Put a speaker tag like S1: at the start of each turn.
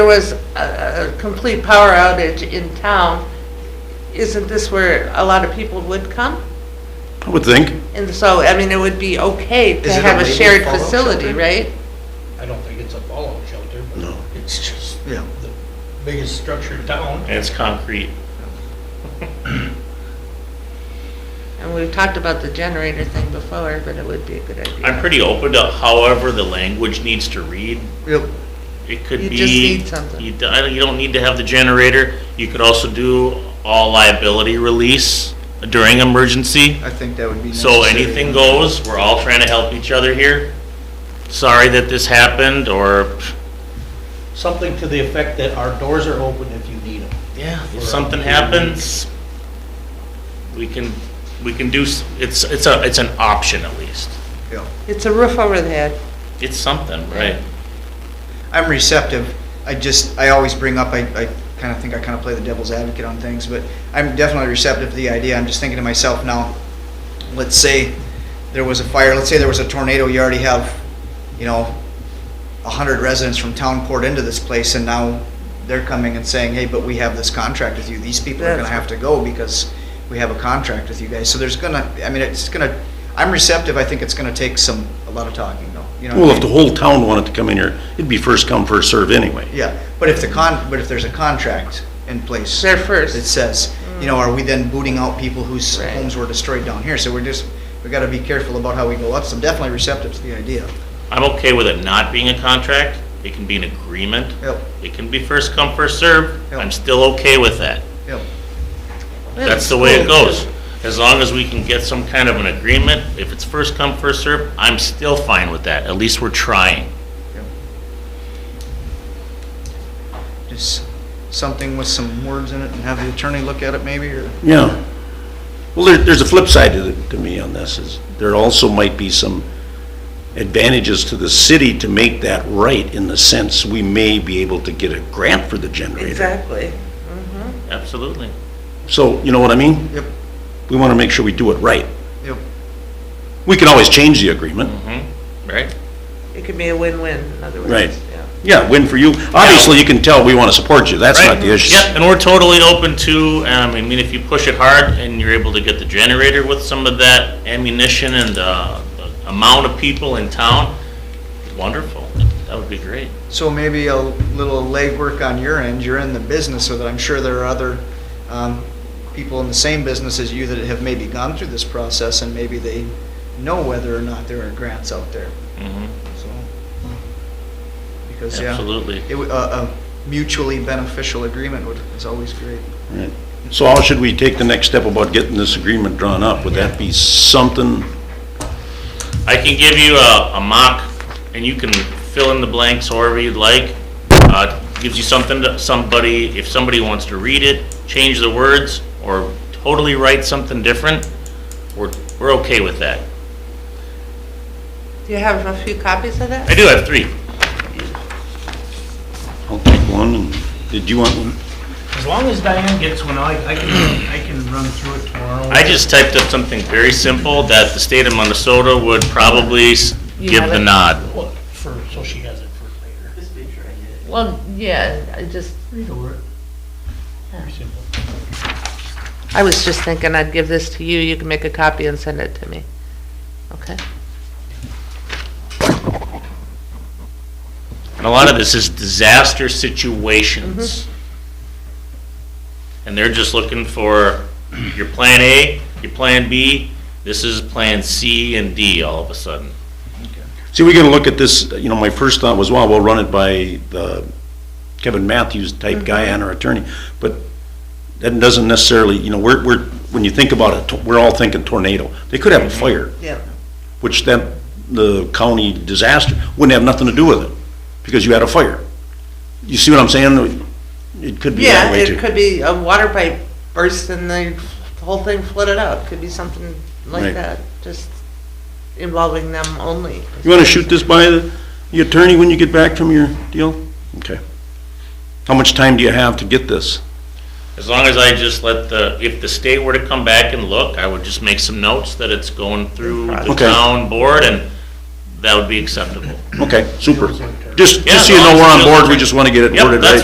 S1: was a, a complete power outage in town, isn't this where a lot of people would come?
S2: I would think.
S1: And so, I mean, it would be okay to
S3: Is it a
S1: have a
S3: labeled
S1: shared
S3: fallout
S1: facility,
S3: shelter?
S1: right?
S4: I don't think it's a fallout shelter, but
S2: No.
S4: it's just
S3: Yeah.
S4: the biggest structure in town.
S5: And it's concrete.
S1: And we've talked about the generator thing before, but it would be a good idea.
S5: I'm pretty open to however the language needs to read.
S3: Yep.
S5: It could
S1: You
S5: be.
S1: just need something.
S5: You do- I don't, you don't need to have the generator. You could also do all liability release during emergency.
S3: I think that would be
S5: So
S3: necessary.
S5: anything goes, we're all trying to help each other here. Sorry that this happened, or,
S4: Something to the effect that our doors are open if you need them.
S5: yeah, if something happens, we can, we can do, s- it's, it's a, it's an option at least.
S3: Yeah.
S1: It's a roof over the head.
S5: It's something, right?
S3: I'm receptive. I just, I always bring up, I, I kind of think I kind of play the devil's advocate on things, but I'm definitely receptive to the idea. I'm just thinking to myself now, let's say there was a fire, let's say there was a tornado, you already have, you know, a hundred residents from town poured into this place and now they're coming and saying, hey, but we have this contract with you. These people are gonna
S1: That's-
S3: have to go because we have a contract with you guys. So there's gonna, I mean, it's gonna, I'm receptive. I think it's gonna take some, a lot of talking though. You know what I
S2: Well,
S3: mean?
S2: if the whole town wanted to come in here, it'd be first come, first serve anyway.
S3: Yeah, but if the con, but if there's a contract in place.
S1: They're
S3: That
S1: first.
S3: says, you know, are we then booting out people whose
S1: Right.
S3: homes were destroyed down here? So we're just, we gotta be careful about how we go up. So I'm definitely receptive to the idea.
S5: I'm okay with it not being a contract. It can be an agreement.
S3: Yep,
S5: It can be first come, first serve.
S3: Yep.
S5: I'm still okay with that.
S3: yep.
S5: That's the way it goes. As long as we can get some kind of an agreement, if it's first come, first serve, I'm still fine with that. At least we're trying.
S3: yep. Just something with some words in it and have the attorney look at it maybe, or,
S2: Yeah. Well, there, there's a flip side to, the- to me on this, is there also might be some advantages to the city to make that right in the sense we may be able to get a grant for the generator.
S1: Exactly.
S5: Absolutely.
S2: So, you know what I mean?
S3: yep,
S2: We want to make sure we do it right.
S3: yep.
S2: We can always change the agreement.
S5: hmm right?
S1: It could be a win-win, in other words.
S2: Right.
S1: yeah.
S2: Yeah, win for you. Obviously, you can tell we want to support you. That's not
S5: Right.
S2: the issue.
S5: Yep, and we're totally open to, um, I mean, if you push it hard and you're able to get the generator with some of that ammunition and uh, the amount of people in town, wonderful. That would be great.
S3: So maybe a little legwork on your end, you're in the business, so that I'm sure there are other um, people in the same business as you that have maybe gone through this process, and maybe they know whether or not there are grants out there,
S5: Mhm,
S3: so. Because, yeah.
S5: Absolutely.
S3: it would- A a mutually beneficial agreement would, is always great.
S2: Right. So how should we take the next step about getting this agreement drawn up? Would that be something?
S5: I can give you a, a mock, and you can fill in the blanks however you'd like. Uh, Gives you something to, somebody, if somebody wants to read it, change the words, or totally write something different, we're, we're okay with that.
S1: Do you have a few copies of that?
S5: I do have three.
S2: I'll take one, and, did you want one?
S6: As long as Diane gets one, I, I can, I can run through it tomorrow.
S5: I just typed up something very simple that the state of Minnesota would probably s-
S1: You
S5: give
S1: have
S5: the
S1: it?
S5: nod.
S4: Well, for, so she has it for later.
S1: Well, yeah, I just,
S4: Read over it. Very simple.
S1: I was just thinking I'd give this to you, you can make a copy and send it to me. Okay?
S5: And a lot of this is disaster situations. And they're just looking for your plan A, your plan B, this is plan C and D all of a sudden.
S2: See, we gotta look at this, you know, my first thought was, wow, we'll run it by the Kevin Matthews type guy
S1: Mm-hmm.
S2: and our attorney, but that doesn't necessarily, you know, we're, we're, when you think about it, we're all thinking tornado. They could
S1: Mm-hmm.
S2: have a fire,
S1: Yeah.
S2: which then the county disaster wouldn't have nothing to do with it, because you had a fire. You see what I'm saying? It could be that
S1: Yeah,
S2: way too.
S1: it could be a water pipe burst and the whole thing flooded out, could be something like
S2: Right.
S1: that, just involving them only.
S2: You wanna shoot this by the, the attorney when you get back from your deal? Okay. How much time do you have to get this?
S5: As long as I just let the, if the state were to come back and look, I would just make some notes that it's going through the
S2: Okay.
S5: town board and that would be acceptable.
S2: Okay, super. Just,
S5: Yeah,
S2: just so you
S5: as
S2: know,
S5: long
S2: we're
S5: as
S2: on
S5: it
S2: board,
S5: doesn't-
S2: we just wanna get it
S5: Yep,
S2: worded
S5: that's
S2: right.